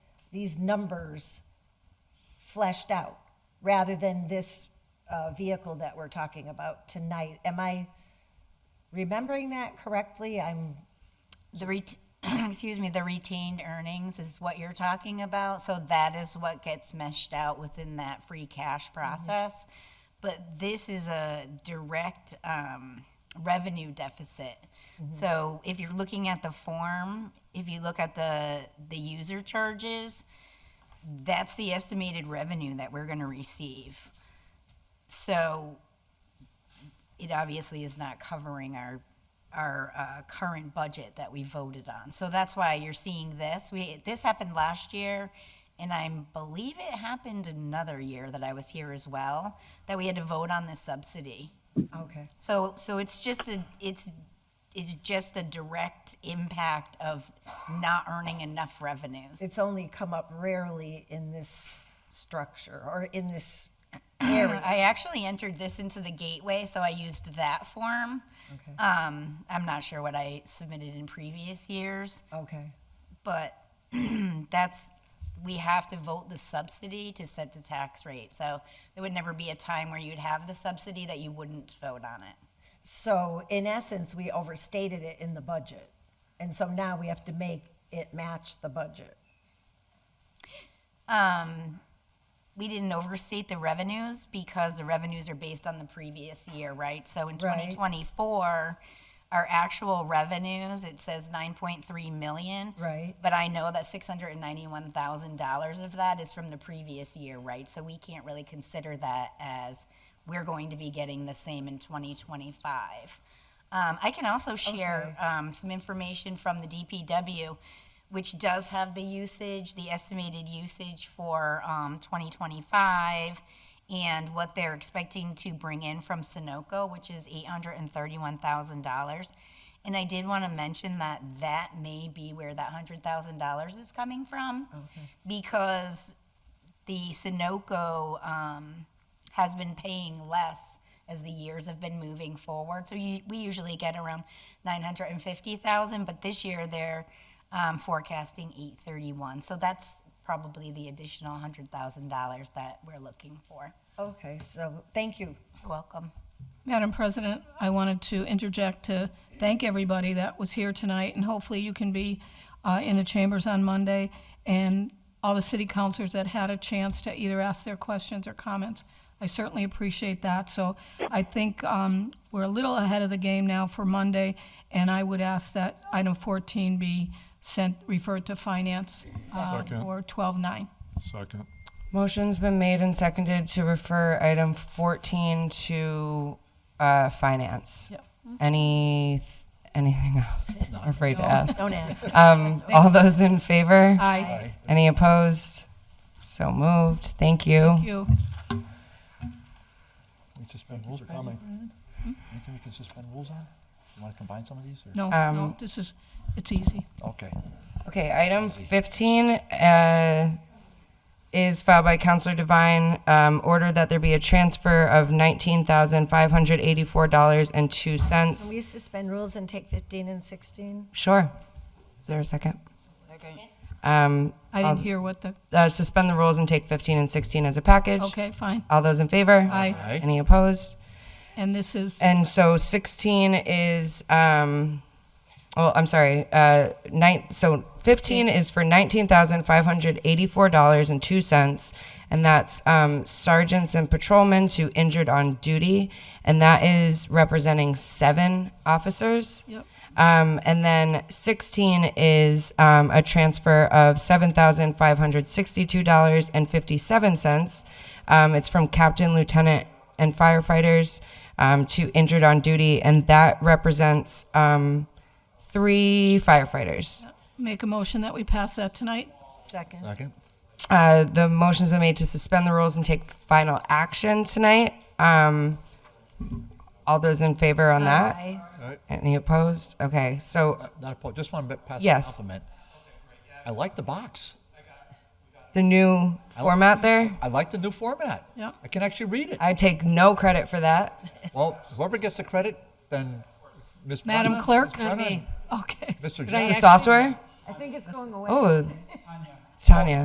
these numbers fleshed out rather than this uh, vehicle that we're talking about tonight. Am I remembering that correctly? I'm, The ret- excuse me, the retained earnings is what you're talking about, so that is what gets meshed out within that free cash process. But this is a direct um, revenue deficit. So if you're looking at the form, if you look at the the user charges, that's the estimated revenue that we're going to receive. So it obviously is not covering our, our uh, current budget that we voted on. So that's why you're seeing this. We, this happened last year, and I believe it happened another year that I was here as well, that we had to vote on this subsidy. okay. So, so it's just a, it's, it's just a direct impact of not earning enough revenues. It's only come up rarely in this structure or in this area. I actually entered this into the gateway, so I used that form. Okay. Um, I'm not sure what I submitted in previous years, Okay. but that's, we have to vote the subsidy to set the tax rate. So there would never be a time where you'd have the subsidy that you wouldn't vote on it. So in essence, we overstated it in the budget. And so now we have to make it match the budget. we didn't overstate the revenues because the revenues are based on the previous year, right? So in Right. 2024, our actual revenues, it says 9.3 million. Right. But I know that $691,000 of that is from the previous year, right? So we can't really consider that as we're going to be getting the same in 2025. Um, I can also share um, some information from the DPW, which does have the usage, the estimated usage for um, 2025, and what they're expecting to bring in from Sunoco, which is $831,000. And I did want to mention that that may be where that $100,000 is coming from, because the Sunoco um, has been paying less as the years have been moving forward. So you, we usually get around 950,000, but this year they're um, forecasting 831. So that's probably the additional $100,000 that we're looking for. Okay, so thank you. You're welcome. Madam President, I wanted to interject to thank everybody that was here tonight, and hopefully you can be uh, in the chambers on Monday, and all the city councilors that had a chance to either ask their questions or comments. I certainly appreciate that, so I think um, we're a little ahead of the game now for Monday, and I would ask that item 14 be sent, referred to finance uh, Second. for 12-9. Second. Motion's been made and seconded to refer item 14 to uh, finance. Yep. Mm-hmm. Any, anything else? Afraid to ask. Don't ask. Um, all those in favor? Aye. Any opposed? So moved. Thank you. Thank you. We suspend rules, we're coming. Hmm? Anything we can suspend rules on? You wanna combine some of these, or? No, no, this is, it's easy. Okay. Okay, item 15 uh, is filed by Counselor Devine. Um, order that there be a transfer of Can $19,584.02. we suspend rules and take 15 and 16? Sure. Is there a second? Um, I didn't hear what the, uh, suspend the rules and take 15 and 16 as a package. okay, fine. All those in favor? Aye. Aye. Any opposed? And this is, And so 16 is, um, well, I'm sorry, uh, nine, so 15 is for $19,584.02, and that's um, sergeants and patrolmen to injured on duty, and that is representing seven officers. Yep. Um, and then 16 is um, a transfer of $7,562.57. Um, it's from captain, lieutenant, and firefighters um, to injured on duty, and that represents um, three firefighters. make a motion that we pass that tonight. Second. Second? Uh, the motions been made to suspend the rules and take final action tonight. Um, all those in favor on that? Aye. Any opposed? Okay, so Uh, Not a point, just wanna pass a Yes. compliment. I like the box. the new format there. I like the new format. Yep. I can actually read it. I take no credit for that. Well, whoever gets the credit, then Ms. Madam Brenna, Clerk? Ms. Brenna, Okay. Mr. It's Jackson. the software? I think it's going away. Oh, Tanya.